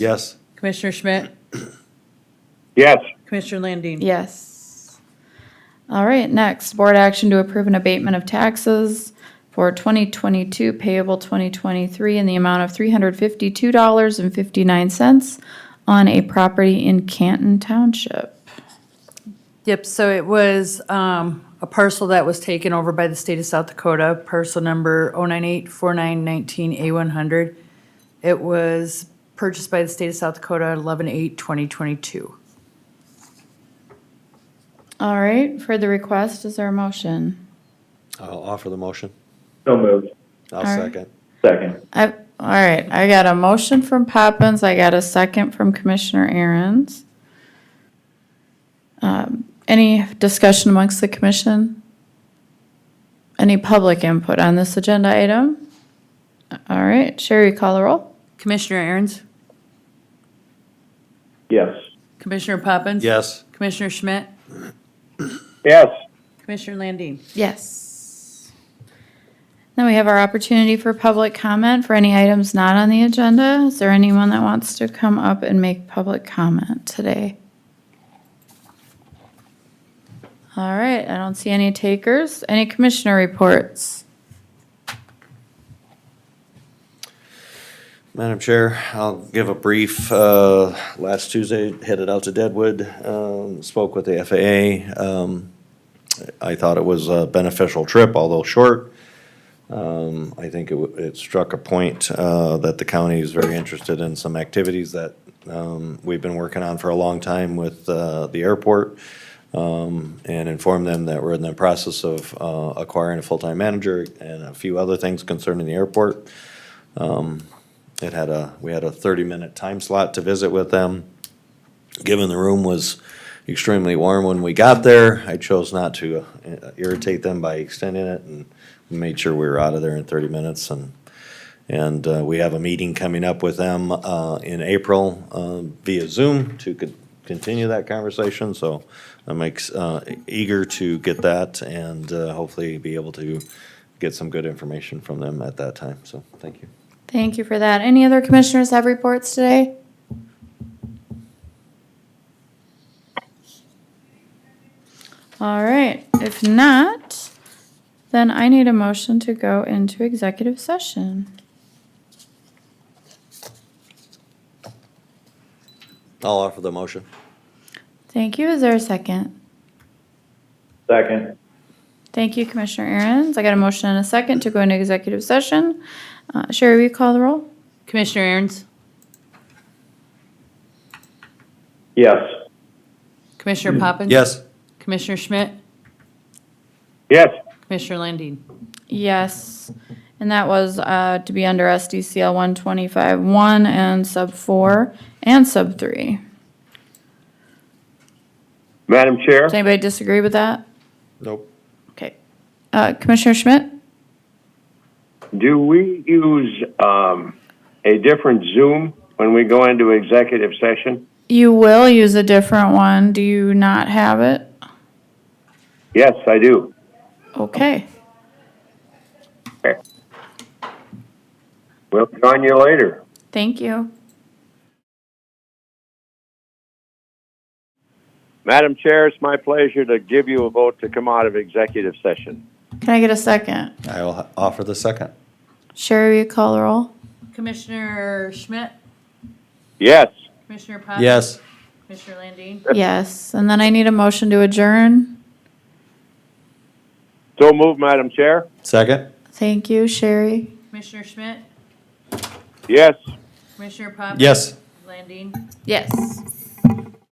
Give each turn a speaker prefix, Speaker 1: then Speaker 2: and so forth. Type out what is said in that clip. Speaker 1: Yes.
Speaker 2: Commissioner Schmidt,
Speaker 3: Yes.
Speaker 2: Commissioner Landine.
Speaker 4: Yes. All right, next, board action to approve an abatement of taxes for twenty twenty-two payable twenty twenty-three in the amount of three hundred fifty-two dollars and fifty-nine cents on a property in Canton Township.
Speaker 2: Yep, so it was um, a parcel that was taken over by the state of South Dakota, parcel number 0984919A100. It was purchased by the state of South Dakota 11/8/2022.
Speaker 4: All right, for the request, is there a motion?
Speaker 1: I'll offer the motion.
Speaker 3: So moved.
Speaker 1: I'll
Speaker 4: right.
Speaker 1: second.
Speaker 3: Second.
Speaker 4: I, all right, I got a motion from Poppins, I got a second from Commissioner Aaron's. Um, Any discussion amongst the commission? Any public input on this agenda item? All right, Sherry, call the roll.
Speaker 2: Commissioner Aaron's,
Speaker 3: Yes.
Speaker 2: Commissioner Poppins.
Speaker 1: Yes.
Speaker 2: Commissioner Schmidt,
Speaker 3: Yes.
Speaker 2: Commissioner Landine.
Speaker 4: Yes. Then we have our opportunity for public comment for any items not on the agenda. Is there anyone that wants to come up and make public comment today? All right, I don't see any takers. Any commissioner reports?
Speaker 1: Madam Chair, I'll give a brief, uh, last Tuesday headed out to Deadwood, um, spoke with the FAA. Um, I thought it was a beneficial trip, although short. Um, I think it, w- it struck a point, uh, that the county is very interested in some activities that, um, we've been working on for a long time with, uh, the airport. um, and inform them that we're in the process of uh, acquiring a full-time manager and a few other things concerning the airport. Um, It had a, we had a thirty-minute time slot to visit with them. Given the room was extremely warm when we got there, I chose not to uh, irritate them by extending it and made sure we were out of there in thirty minutes and and uh, we have a meeting coming up with them uh, in April uh, via Zoom to co- continue that conversation. So I'm ex- uh, eager to get that and uh, hopefully be able to get some good information from them at that time. So thank you.
Speaker 4: Thank you for that. Any other commissioners have reports today? All right, if not, then I need a motion to go into executive session.
Speaker 1: I'll offer the motion.
Speaker 4: Thank you. Is there a second?
Speaker 3: Second.
Speaker 4: Thank you, Commissioner Aaron's. I got a motion and a second to go into executive session. Uh, Sherry, will you call the roll?
Speaker 2: Commissioner Aaron's,
Speaker 3: Yes.
Speaker 2: Commissioner Poppins.
Speaker 1: Yes.
Speaker 2: Commissioner Schmidt,
Speaker 3: Yes.
Speaker 2: Commissioner Landine.
Speaker 4: Yes, and that was uh, to be under SDCL 125-1 and sub 4 and sub 3.
Speaker 3: Madam Chair?
Speaker 4: Does anybody disagree with that?
Speaker 1: Nope.
Speaker 4: Okay. Uh, Commissioner Schmidt?
Speaker 3: Do we use um, a different Zoom when we go into executive session?
Speaker 4: You will use a different one. Do you not have it?
Speaker 3: Yes, I do.
Speaker 4: Okay.
Speaker 3: We'll join you later.
Speaker 4: Thank you.
Speaker 3: Madam Chair, it's my pleasure to give you a vote to come out of executive session.
Speaker 4: Can I get a second?
Speaker 1: I'll h- offer the second.
Speaker 4: Sherry, will you call the roll?
Speaker 2: Commissioner Schmidt,
Speaker 3: Yes.
Speaker 2: Commissioner Poppins.
Speaker 1: Yes.
Speaker 2: Commissioner Landine.
Speaker 4: Yes, and then I need a motion to adjourn.
Speaker 3: So moved, Madam Chair?
Speaker 1: Second?
Speaker 4: Thank you, Sherry.
Speaker 2: Commissioner Schmidt,
Speaker 3: Yes.
Speaker 2: Commissioner Poppins.
Speaker 1: Yes.
Speaker 2: Landine.
Speaker 4: Yes.